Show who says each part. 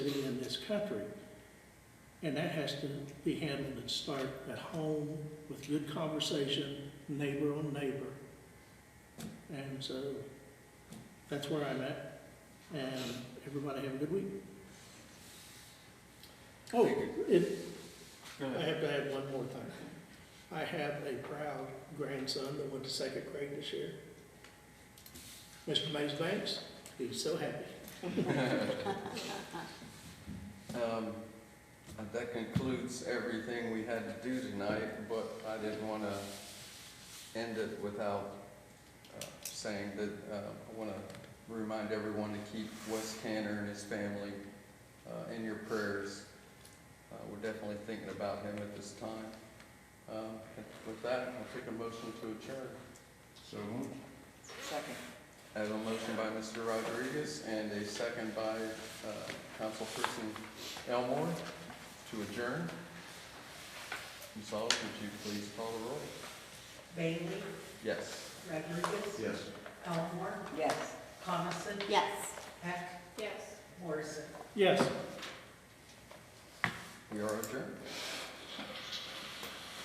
Speaker 1: this country. And that has to be handled and start at home with good conversation, neighbor on neighbor. And so that's where I'm at. And everybody have a good week. Oh, it,
Speaker 2: Go
Speaker 1: I
Speaker 2: ahead.
Speaker 1: have to add one more thing. I have a proud grandson that went to second grade this year. Mr. Mays Banks, he's so happy.
Speaker 2: Um, That concludes everything we had to do tonight, but I didn't want to end it without uh, saying that uh, I want to remind everyone to keep Wes Canner and his family uh, in your prayers. Uh, We're definitely thinking about him at this time. Um, With that, I'll take a motion to adjourn.
Speaker 3: So moved.
Speaker 4: Second.
Speaker 2: I have a motion by Mr. Rodriguez and a second by uh, Councilperson Elmore to adjourn. Ms. Aug, would you please call the roll?
Speaker 5: Bailey,
Speaker 2: Yes.
Speaker 5: Rodriguez,
Speaker 3: Yes.
Speaker 5: Elmore,
Speaker 4: Yes.
Speaker 5: Coniston,
Speaker 6: Yes.
Speaker 5: Heck,
Speaker 6: Yes.
Speaker 5: Morrison.
Speaker 1: Yes.
Speaker 2: We are adjourned.